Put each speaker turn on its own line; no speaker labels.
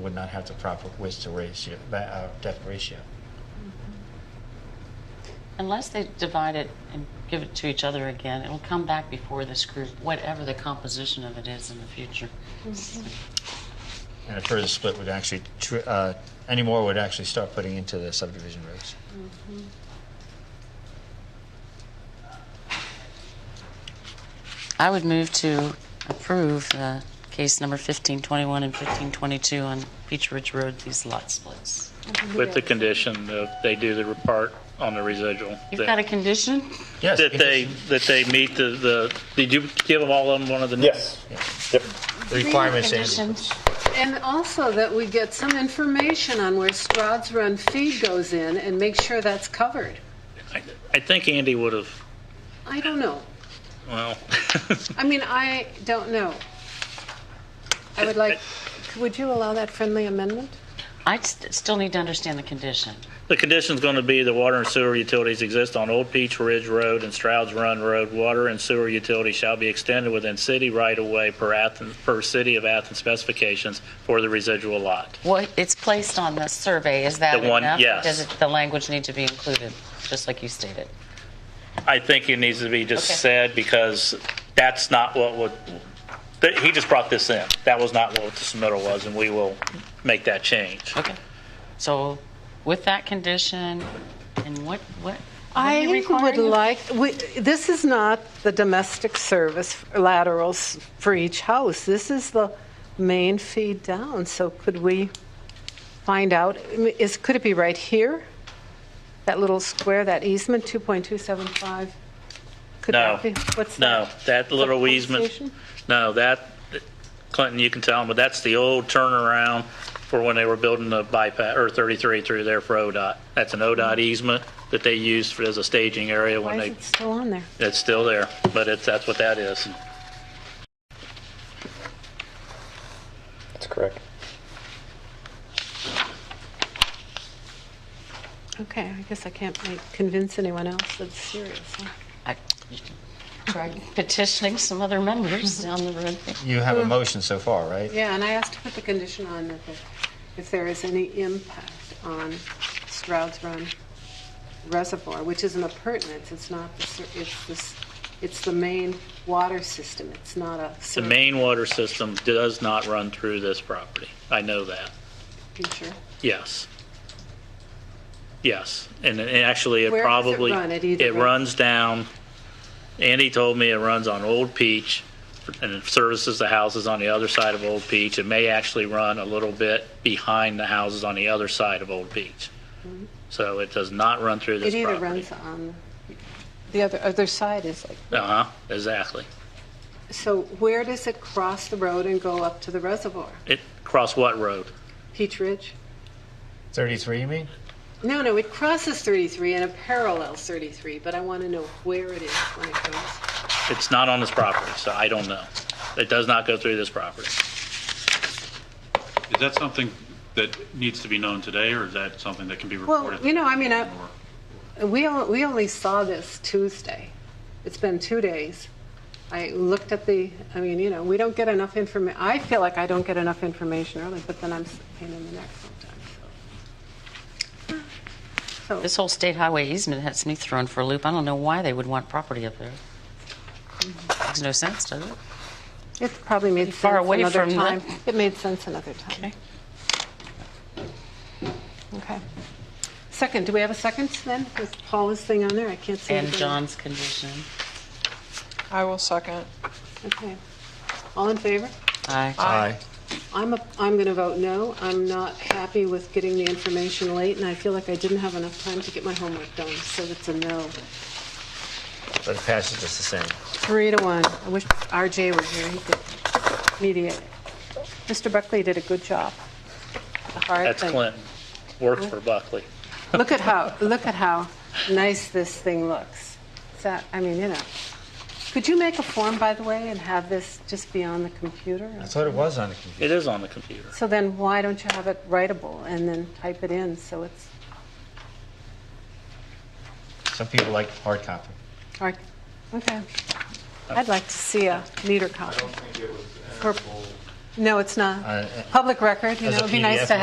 would not have the proper width to ratio, ba- uh, depth ratio.
Unless they divide it and give it to each other again, it'll come back before this group, whatever the composition of it is in the future.
And a further split would actually, tr- uh, any more would actually start putting into the subdivision roads.
I would move to approve uh, case number 1521 and 1522 on Peach Ridge Road, these lot splits.
With the condition that they do the part on the residual.
You've
that-
got a condition?
Yes.
That they,
because
that they meet the, the, did you give them all of them one of the?
Yes. Yep.
The requirements and
Conditions. And also that we get some information on where Stroud's Run feed goes in and make sure that's covered.
I- I think Andy would have,
I don't know.
well,
I mean, I don't know. I would like, would you allow that friendly amendment?
I st- still need to understand the condition.
the condition's going to be the water and sewer utilities exist on Old Peach Ridge Road and Stroud's Run Road. Water and sewer utilities shall be extended within city right-of-way per Athens, per city of Athens specifications for the residual lot.
Well, it's placed on the survey, is that
The one-
enough?
yes.
Does it- the language need to be included, just like you stated?
I think it needs to be just
Okay.
said because that's not what would, that- he just brought this in. That was not what the submittal was, and we will make that change.
Okay. So with that condition, and what, what? what are
I
you
would
requiring?
like, we- this is not the domestic service laterals for each house. This is the main feed down, so could we find out, I mean, is, could it be right here? That little square, that easement, 2.275? Could
No.
that be- What's
No,
that?
that little
pump
easement,
station?
no, that, Clinton, you can tell them, but that's the old turnaround for when they were building the bypass, or 33 through there for ODOT. That's an ODOT easement that they used for- as a staging area when
Why is
they,
it still on there?
it's still there, but it's, that's what that is.
That's correct.
Okay, I guess I can't make- convince anyone else that's serious. huh?
I- Try petitioning some other members down the road.
you have a motion so far, right?
Mm. Yeah, and I asked to put the condition on that the- if there is any impact on Stroud's Run Reservoir, which is an appurtenance, it's not, the ser- it's this, it's the main water system, it's not a.
The main water system does not run through this property. I know that.
Feature.
Yes. Yes, and and actually, it
Where does it
probably.
run? At either
It
road?
runs down, Andy told me it runs on Old Peach and it services the houses on the other side of Old Peach. It may actually run a little bit behind the houses on the other side of Old Peach. So it does not run through this
It either
property.
runs on, the other, other side is like,
Uh-huh, exactly.
so where does it cross the road and go up to the reservoir?
It, cross what road?
Peach Ridge?
33, you mean?
No, no, it crosses 33 and it parallels 33, but I want to know where it is when it goes.
It's not on this property, so I don't know. It does not go through this property.
Is that something that needs to be known today, or is that something that can be
Well,
reported?
you know, I mean, I,
Or-
We, on- we only saw this Tuesday. It's been two days. I looked at the, I mean, you know, we don't get enough information. I feel like I don't get enough information early, but then I'm s- pain in the neck sometimes. So,
This whole state highway easement has me thrown for a loop. I don't know why they would want property up there. Makes no sense, does it?
so it probably made
far
sense
away
another
from the-
time. It made sense another time.
Okay.
Okay. Second, do we have a second then? With Paula's thing on there, I can't see.
And
anything.
John's condition.
I will second.
Okay. All in favor?
Aye.
Aye.
I'm, a- I'm going to vote no. I'm not happy with getting the information late, and I feel like I didn't have enough time to get my homework done, so it's a no.
But it passes just the same.
Three to one. I wish RJ were here, he could mediate. Mr. Buckley did a good job. A hard
That's
thing.
Clinton. Works for Buckley.
Look at how, look at how nice this thing looks. Is that, I mean, you know. Could you make a form, by the way, and have this just be on the computer?
I thought it was on the computer.
It is on the computer.
So then why don't you have it writable and then type it in so it's
Some people like hard copy.
Or- Okay. I'd like to see a neater copy.
I don't think it was
Or-
amenable
No, it's not.
Uh,
Public record, you
As
know,
a
it'd be nice
PDF,
to